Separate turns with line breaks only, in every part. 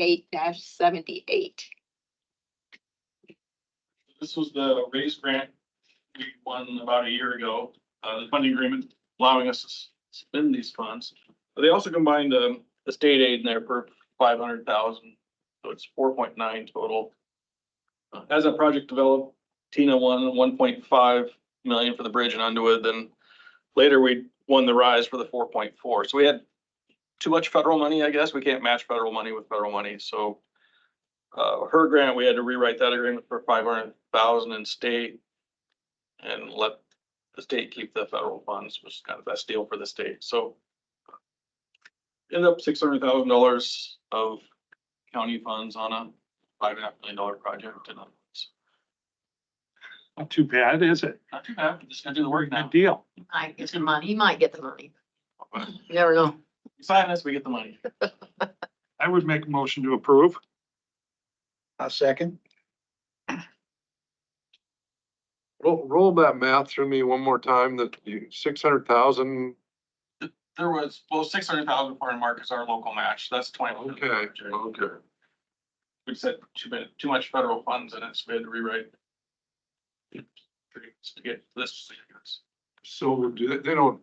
eight seventy-eight.
This was the raise grant we won about a year ago, uh, the funding agreement allowing us to s- spend these funds. But they also combined, um, the state aid in there for five hundred thousand, so it's four point nine total. Uh, As that project developed, Tina won one point five million for the bridge in Underwood, then later we won the rise for the four point four. So we had too much federal money, I guess. We can't match federal money with federal money, so uh, her grant, we had to rewrite that agreement for five hundred thousand in state. And let the state keep the federal funds, which is kind of the best deal for the state, so. End up six hundred thousand dollars of county funds on a five and a half million dollar project and uh, it's
Not too bad, is it?
not too bad, we just gotta do the work now.
Good deal.
Might get the money, he might get the money. You Never know.
Sign us, we get the money.
I would make a motion to approve.
A second.
Roll, roll that math through me one more time, that you, six hundred thousand,
There was, well, six hundred thousand for Mark is our local match, that's twenty.
okay, okay.
We said too many, too much federal funds in it, so we had to rewrite. To get this.
So do they, they don't,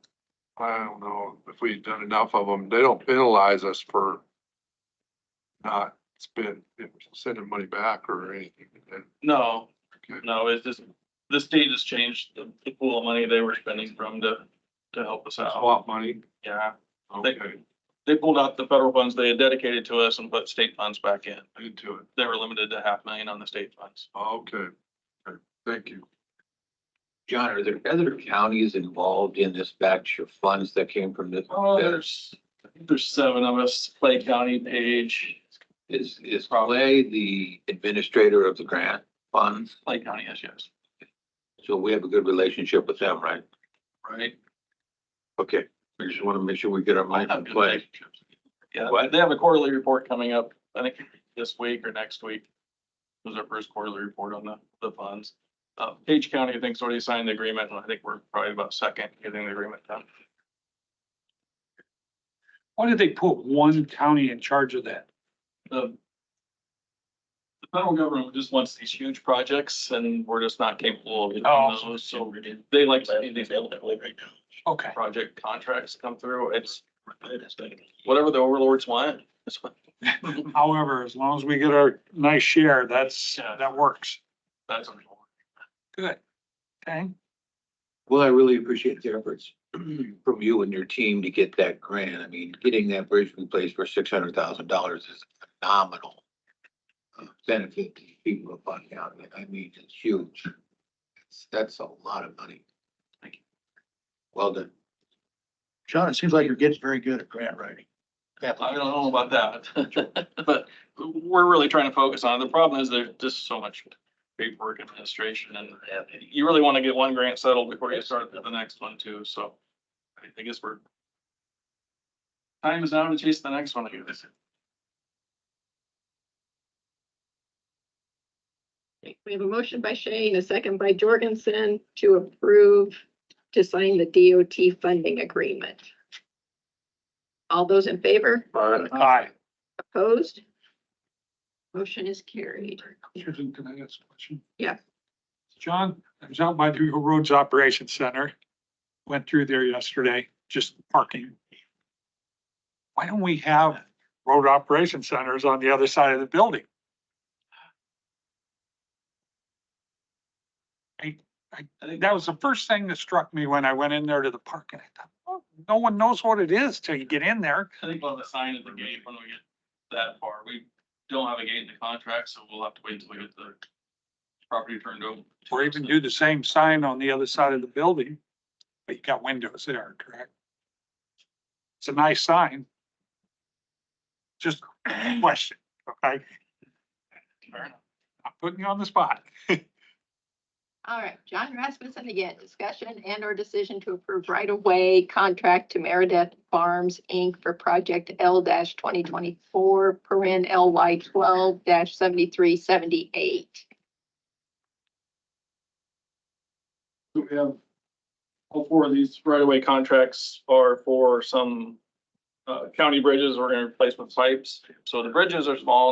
I don't know if we've done enough of them, they don't penalize us for not spend, sending money back or anything.
No,
Okay.
no, it's just, the state has changed the the pool of money they were spending from to, to help us
That's a
out.
lot of money,
Yeah,
okay,
they pulled out the federal funds they had dedicated to us and put state funds back in.
into it,
They were limited to half million on the state funds.
okay, okay, thank you.
John, are there other counties involved in this batch of funds that came from this?
Oh, there's, I think there's seven of us, Clay County, Page,
Is, is Clay the administrator of the grant funds?
Clay County, yes, yes,
So we have a good relationship with them, right?
right?
Okay, we just want to make sure we get our
All
mind
have
on
good
Clay.
relationships. Yeah,
What?
they have a quarterly report coming up, I think this week or next week. It was our first quarterly report on the, the funds. Uh, Page County, I think, has already signed the agreement, and I think we're probably about second getting the agreement done.
Why did they put one county in charge of that?
The the federal government just wants these huge projects, and we're just not capable of getting
Oh.
those, so they like to see these
Okay.
project contracts come through, it's whatever the overlords want, that's what,
However, as long as we get our nice share, that's,
Yeah.
that works.
that's what we want.
Good. Okay.
Well, I really appreciate the efforts from you and your team to get that grant. I mean, getting that bridge replaced for six hundred thousand dollars is phenomenal. uh, Benefit to people of Buck County. I mean, it's huge. That's- That's a lot of money. Thank you. Well done.
John, it seems like you're getting very good at grant writing.
I don't know about that, but we're really trying to focus on it. The problem is there's just so much paperwork administration and you really want to get one grant settled before you start the next one too, so I I guess we're time is now to chase the next one, I guess.
Okay, We have a motion by Shane, a second by Jorgensen to approve to sign the DOT funding agreement. All those in favor?
Uh,
Aye.
Opposed? Motion is carried.
Susan, can I ask a question?
Yeah.
John, I was out by the Roads Operations Center, went through there yesterday, just parking. Why don't we have road operation centers on the other side of the building? I, I, that was the first thing that struck me when I went in there to the park and I thought, oh, no one knows what it is till you get in there.
I think we'll have a sign at the gate when we get that far. We don't have a gate in the contract, so we'll have to wait until we get the property turned over.
Or even do the same sign on the other side of the building, but you got windows there, correct? It's a nice sign. Just a question, okay?
Fair enough.
I'm putting you on the spot.
All right, John Rasmussen again, discussion and or decision to approve right-of-way contract to Meredith Farms, Inc. for project L twenty twenty-four, paren LY twelve seventy-three seventy-eight.
So we have, all four of these right-of-way contracts are for some uh, county bridges we're gonna replace with pipes. So the bridges are small